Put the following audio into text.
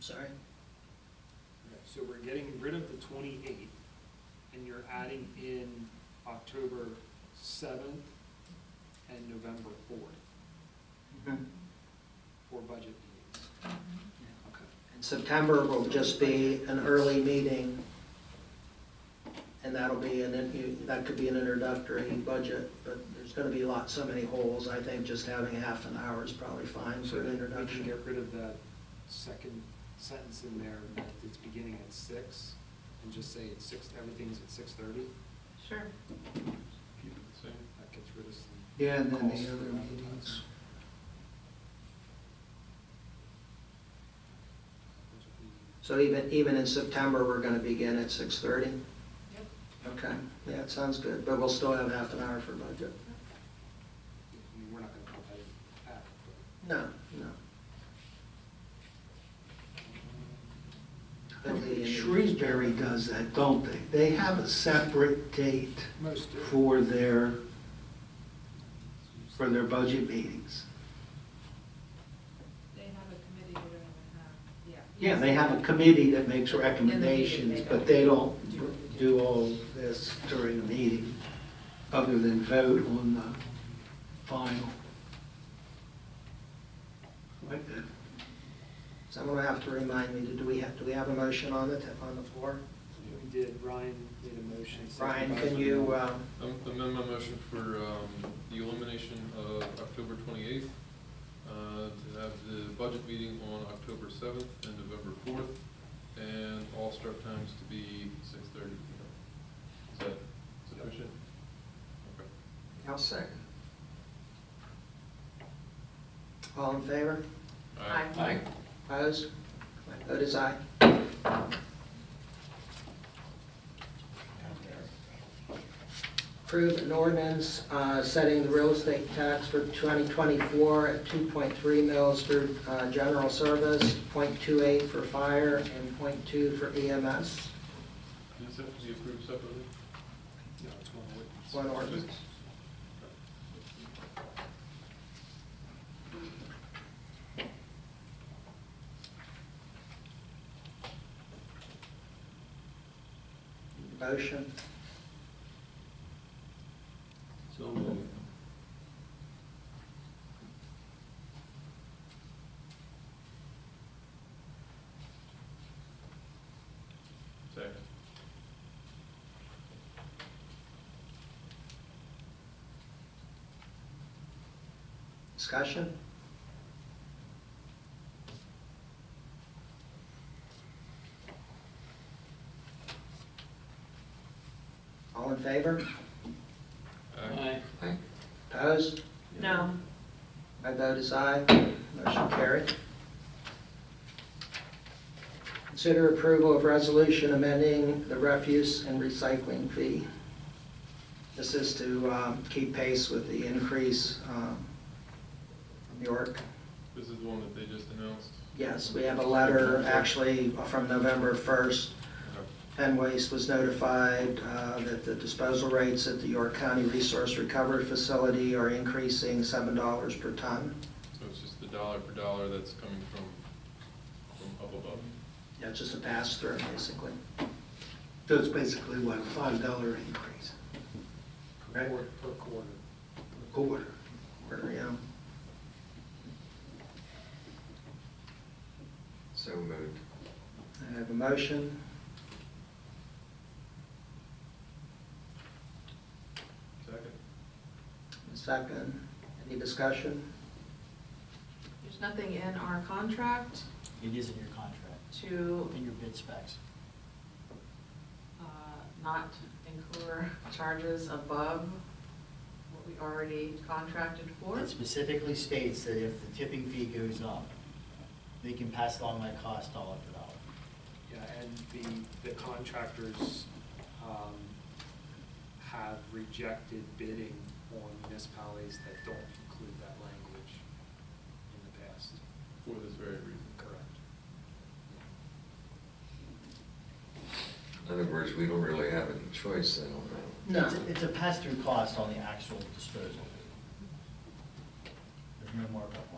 sorry. So we're getting rid of the twenty-eighth, and you're adding in October seventh and November fourth Mm-hmm. for budget meetings. Okay. And September will just be an early meeting, and that'll be, an you, that could be an introductory budget, but there's gonna be lot, so many holes, I think just having half an hour is probably fine So for an we can introduction. get rid of that second sentence in there, that it's beginning at six, and just say it's six, everything's at six thirty. Sure. Keep it the same. That gets rid of some. Yeah, and then the costs for other advertising. meetings. So even, even in September, we're gonna begin at six thirty? Yep. Okay, yeah, it sounds good, but we'll still have half an hour for budget. I mean, we're not gonna put that in act, but, No, no. I think Shrewsbury does that, don't they? They have a separate date um, Most do. for their, for their budget meetings. They have a committee, they don't even have, yeah. Yeah, they have a committee that makes recommendations, but they don't do all this during the meeting, other than vote on the final. Like that. Someone will have to remind me, do we have, do we have a motion on the, t- on the floor? We did, Ryan made a motion. Brian, can you, uh, Um, Amend my motion for um, the elimination of October 28th, uh, to have the budget meeting on October 7th and November 4th, and all start times to be 6:30 PM. Is that sufficient? Okay. I'll second. All in favor? All right. Aye. Opposed? My vote is aye. Approve an ordinance uh, setting the real estate tax for 2024 at 2.3 mils for uh, general service, .28 for fire, and .2 for E EMS. Does this have to be approved separately? No, it's one witness. One ordinance. Motion. So moved. Second. Discussion? All in favor? Aye. Opposed? No. My vote is aye. Motion carried. Consider approval of resolution amending the refuse and recycling fee. This is to um, keep pace with the increase um, from York. This is the one that they just announced. Yes, we have a letter actually from November 1st Okay. Penn Waste was notified uh, that the disposal rates at the York County Resource Recovery Facility are increasing $7 per ton. So it's just the dollar for dollar that's coming from, from up above. Yeah, it's just a pass-through, basically. So it's basically what, a five dollar increase Per quar- per quarter. per quarter? Or, you know, So moved. I have a motion. Second. A Second, any discussion? There's nothing in our contract It is in your contract, to in your bid specs. uh, not incur charges above what we already contracted for. It specifically states that if the tipping fee goes up, they can pass along that cost dollar for dollar. Yeah, and the, the contractors um, have rejected bidding on municipalities that don't include that language in the past. For this very reason. Correct. In other words, we don't really have any choice then on that. No. It's a- It's a pass-through cost on the actual disposal. There's no markup.